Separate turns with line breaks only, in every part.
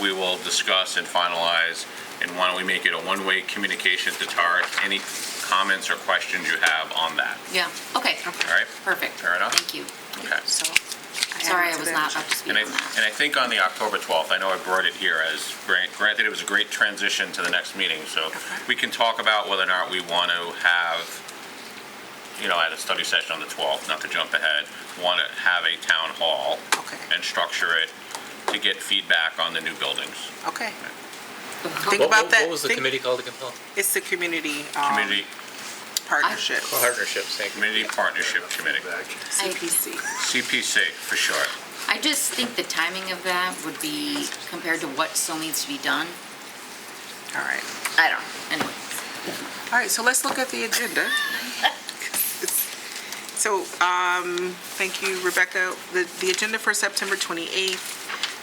we will discuss and finalize. And why don't we make it a one-way communication to Tara, any comments or questions you have on that?
Yeah, okay.
All right.
Perfect.
Fair enough.
Thank you.
Okay.
So, sorry I was not up to speed
And I,
on
and
that.
I think on the October 12th, I know I brought it here as, grant- granted, it was a great transition to the next meeting, so we can talk about whether or not we want to have, you know, at a study session on the 12th, not to jump ahead, want to have a town hall
Okay.
and structure it to get feedback on the new buildings.
Okay.
What-
Think
what-
about that.
What was the
Think-
committee called again, Paul?
It's the community um,
Community,
partnership,
Partnerships, thank you.
Community Partnership Committee,
CPC.
CPC for short.
I just think the timing of that would be compared to what still needs to be done.
All right.
I don't, anyway.
All right, so let's look at the agenda. So, um, thank you, Rebecca. The, the agenda for September 28th,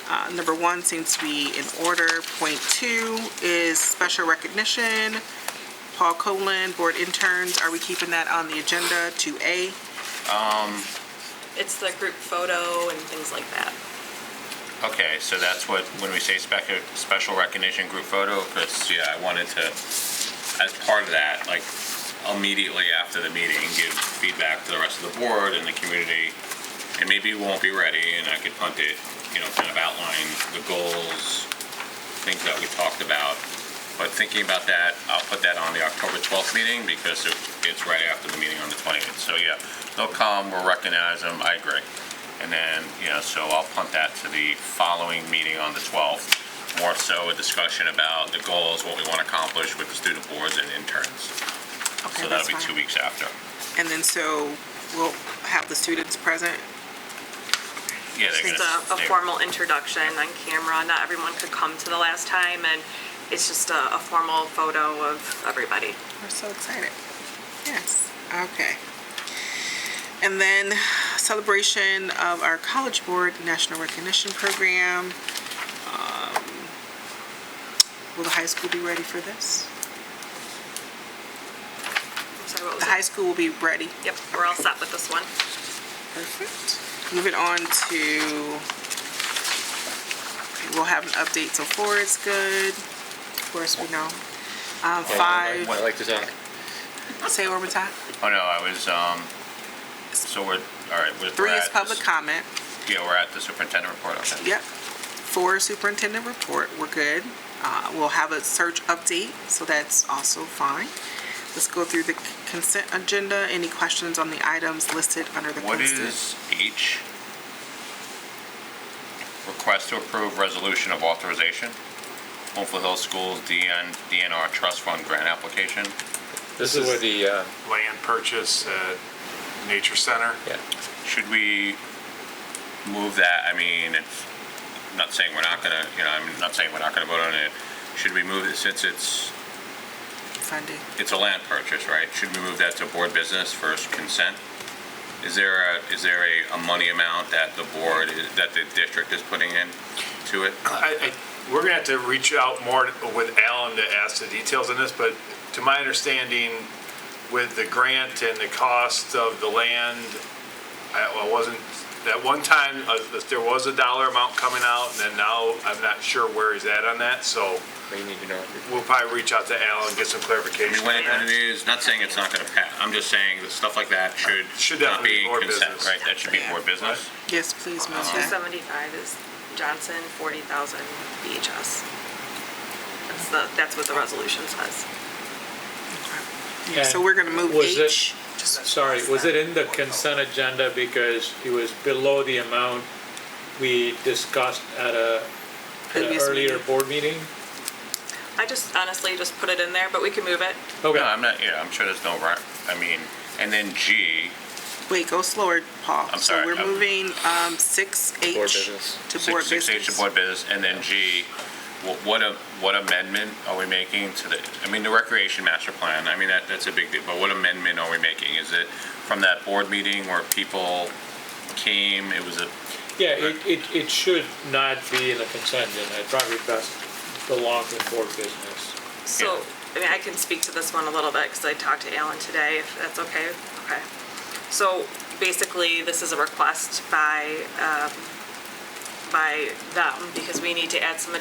uh, number one seems to be in order. Point two is special recognition. Paul Colin, board interns, are we keeping that on the agenda? 2A?
It's the group photo and things like that.
Okay, so that's what, when we say spec, special recognition group photo, because, yeah, I wanted to, as part of that, like, immediately after the meeting, give feedback to the rest of the board and the community, and maybe we won't be ready, and I could punt it, you know, kind of outline the goals, things that we talked about. But thinking about that, I'll put that on the October 12th meeting, because it- it's right after the meeting on the 20th. So, yeah, they'll come, we'll recognize them, I agree. And then, you know, so I'll punt that to the following meeting on the 12th. More so a discussion about the goals, what we want to accomplish with the student boards and interns.
Okay,
So
that's
that'll be two
fine.
weeks after.
And then so we'll have the students present?
Yeah, they're
It's
gonna-
a, a
they-
formal introduction on camera. Not everyone could come to the last time, and it's just a, a formal photo of everybody.
We're so excited. Yes, okay. And then celebration of our College Board National Recognition Program. Um, Will the high school be ready for this?
Sorry, what
The
was
high
it?
school will be ready.
Yep, we're all set with this one.
Perfect. Moving on to, we'll have an update, so four is good. Of course, we know. Um, Five,
I like to talk.
say it one more time.
Oh, no, I was, um, so we're, all right. we're-
Three
we're
is
at the-
public comment.
Yeah, we're at the superintendent report, okay.
Yep. For superintendent report, we're good. Uh, We'll have a search update, so that's also fine. Let's go through the consent agenda. Any questions on the items listed under the
What
consent?
is H? Request to approve resolution of authorization, Hopeful Hill Schools DN, DNR Trust Fund Grant Application.
This is where the, uh,
land purchase at Nature Center.
yeah,
Should we move that, I mean, it's, I'm not saying we're not gonna, you know, I'm not saying we're not gonna vote on it. Should we move it, since it's,
Funding.
it's a land purchase, right? Should we move that to board business first consent? Is there a, is there a, a money amount that the board, is- that the district is putting in to it?
I, I, we're gonna have to reach out more with Alan to ask the details on this, but to my understanding, with the grant and the cost of the land, I, I wasn't, at one time, uh, there was a dollar amount coming out, and then now I'm not sure where he's at on that, so
we need to know.
we'll probably reach out to Alan, get
I
some
mean,
clarification.
when
on
it when it
that.
is, not saying it's not gonna pass, I'm just saying that stuff like that should
Should
not
definitely
be
be board
consent,
business.
right? That should be
Yeah.
board business.
Yes,
Uh,
please, move
Two
that.
seventy-five is Johnson, forty thousand VHS. That's the, that's what the resolution says.
Yeah, So we're going to move
Was it-
H.
Sorry, was it in the consent agenda because it was below the amount we discussed at a, at an
Previous
earlier
meeting.
board meeting?
I just honestly just put it in there, but we can move it.
No,
Okay,
I'm not, yeah, I'm sure there's no, right- I mean, and then G,
Wait, go slower, Paul.
I'm sorry,
So we're
I'm-
moving um, 6H.
Board business.
To board
six, six H to
business.
board business, and then G, wh- what, a- what amendment are we making to the, I mean, the recreation master plan, I mean, that, that's a big deal, but what amendment are we making? Is it from that board meeting where people came, it was a,
yeah, it, it, it should not be in the consent agenda, it probably best belongs in board business.
So, I mean, I can speak to this one a little bit, because I talked to Alan today, if that's okay. Okay. So basically, this is a request by, um, by them, because we need to add some